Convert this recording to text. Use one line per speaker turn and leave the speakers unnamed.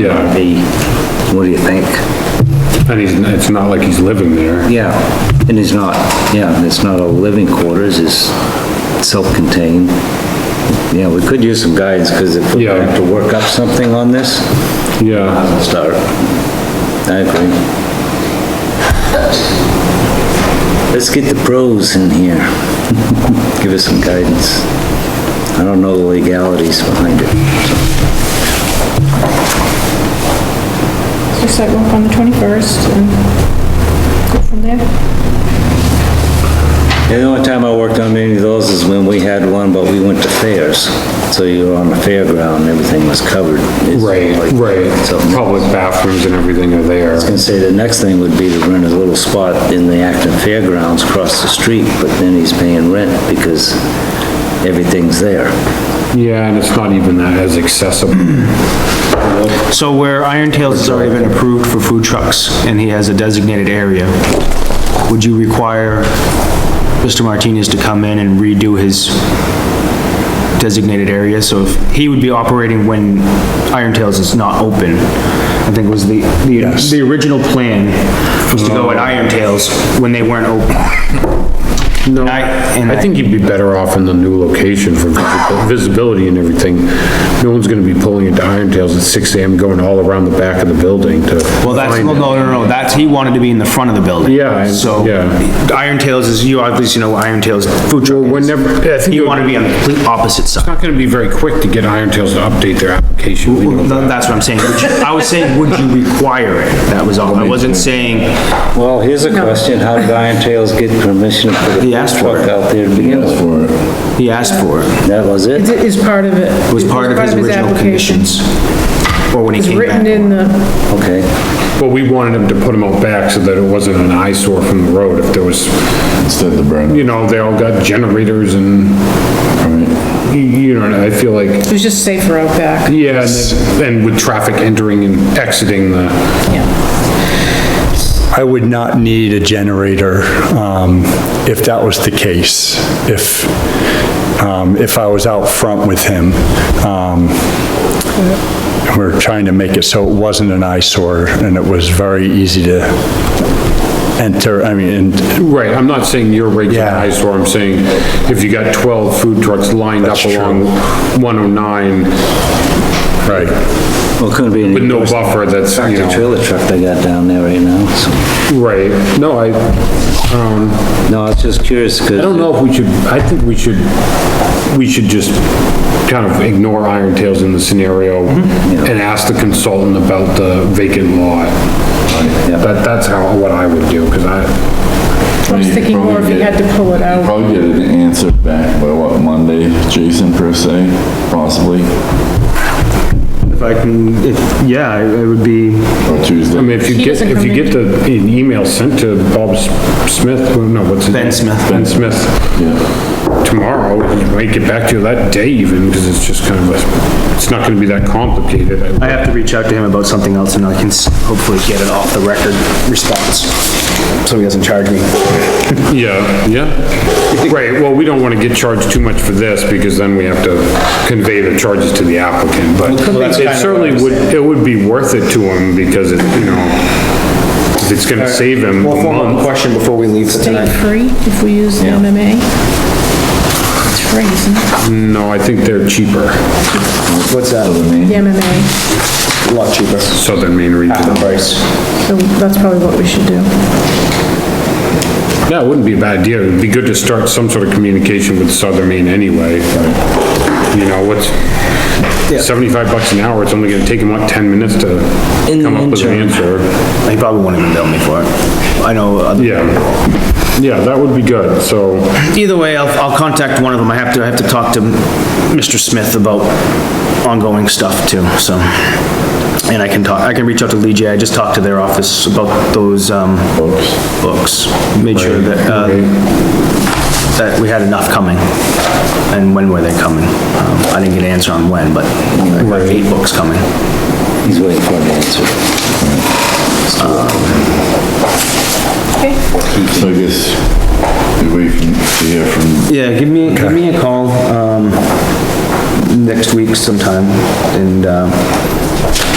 Yeah.
be, what do you think?
And he's, it's not like he's living there.
Yeah, and it's not, yeah, it's not a living quarters, it's self-contained. Yeah, we could use some guidance, because if we
Yeah.
have to work up something on this,
Yeah.
I'll start. I agree. Let's get the pros in here. Give us some guidance. I don't know the legalities behind it.
So sidewalk on the 21st and go from there.
Yeah, The only time I worked on any of those is when we had one, but we went to fairs. So you were on the fairground, and everything was covered. It's
Right,
like-
right.
So I
Public bathrooms and everything are there.
was gonna say, the next thing would be to rent a little spot in the Acton Fairgrounds across the street, but then he's paying rent because everything's there.
Yeah, and it's not even that as accessible.
So where Iron Tales has already been approved for food trucks, and he has a designated area, would you require Mr. Martinez to come in and redo his designated area? So if, he would be operating when Iron Tales is not open, I think was the, the, the original plan was to go at Iron Tales when they weren't open.
No,
I- and
I
I-
think you'd be better off in the new location for visibil- visibility and everything. No one's gonna be pulling into Iron Tales at six AM going all around the back of the building to
Well, that's,
find
no,
it.
no, no, no, that's, he wanted to be in the front of the building.
Yeah, I-
So,
yeah.
Iron Tales is, you obviously know Iron Tales food truck
Well,
is.
whenever, I think
You
it
want to
would-
be on the complete opposite
it's
side.
not gonna be very quick to get Iron Tales to update their application. We know that.
That's what I'm saying. Would you- I was saying, would you require it? That was all. I wasn't saying,
Well, here's a question, how did Iron Trails get permission to put a
He
food
asked for
truck
it.
out there to begin with?
he asked for it.
That was it?
It is part of it.
It was part of his original
application.
conditions. Or when he
It's
came
written
back.
in the.
Okay,
But we wanted them to put them out back so that it wasn't an eyesore from the road if there was,
Instead of the burn.
you know, they all got generators and, you- you know, I feel like
It was just safer out back.
Yeah, and then- and with traffic entering and exiting the,
I would not need a generator um, if that was the case, if, um, if I was out front with him. Um, We're trying to make it so it wasn't an eyesore, and it was very easy to enter, I mean, and
right, I'm not saying your regular
Yeah.
eyesore, I'm saying if you got 12 food trucks lined up
That's true.
along 109
right,
well, couldn't be
with
any
no buffer, that's, you
tractor
know,
trailer truck they got down there right now, so.
right, no, I, um,
No, I was just curious, because.
I don't know if we should, I think we should, we should just kind of ignore Iron Tales in the scenario
Mm-hmm.
and ask the consultant about the vacant lot. That, that's how, what I would do, because I,
I was thinking more if you had to pull it out.
Probably get an answer back by what, Monday, Jason per se, possibly,
If I can, if, yeah, it would be,
or Tuesday.
I mean, if you
He
get,
doesn't
if you
come in.
get the, an email sent to Bob S- Smith, or no, what's his?
Ben
name?
Smith.
Ben Smith,
Yeah.
tomorrow, he might get back to you that day even, because it's just kind of a, it's not gonna be that complicated.
I have to reach out to him about something else and I can s- hopefully get an off the record response. So he doesn't charge me.
Yeah, yeah. Right, well, we don't wanna get charged too much for this, because then we have to convey the charges to the applicant, but it certainly would, it would be worth it to him, because it, you know, if it's gonna save him a
One more
month.
question before we leave for
State
tonight.
free if we use the MMA. It's free, isn't it?
No, I think they're cheaper,
What's that?
The MMA.
A lot cheaper.
Southern Maine Regional.
Price.
So that's probably what we should do.
Yeah, it wouldn't be a bad idea. It'd be good to start some sort of communication with Southern Maine anyway. You know, what's, 75 bucks an hour, it's only gonna take him, what, 10 minutes to
the
come up with an answer?
He probably won't even bill me for it. I know uh, other
Yeah. Yeah, that would be good, so,
Either way, I'll, I'll contact one of them. I have to, I have to talk to Mr. Smith about ongoing stuff too, so. And I can talk, I can reach out to Lee J. I just talked to their office about those, um, books. Made sure that, uh, that we had enough coming. And when were they coming? Um, I didn't get an answer on when, but I got eight books coming.
He's waiting for an answer.
So I guess, we wait from- to hear from,
Yeah, give me, give me a call, um, next week sometime and, uh,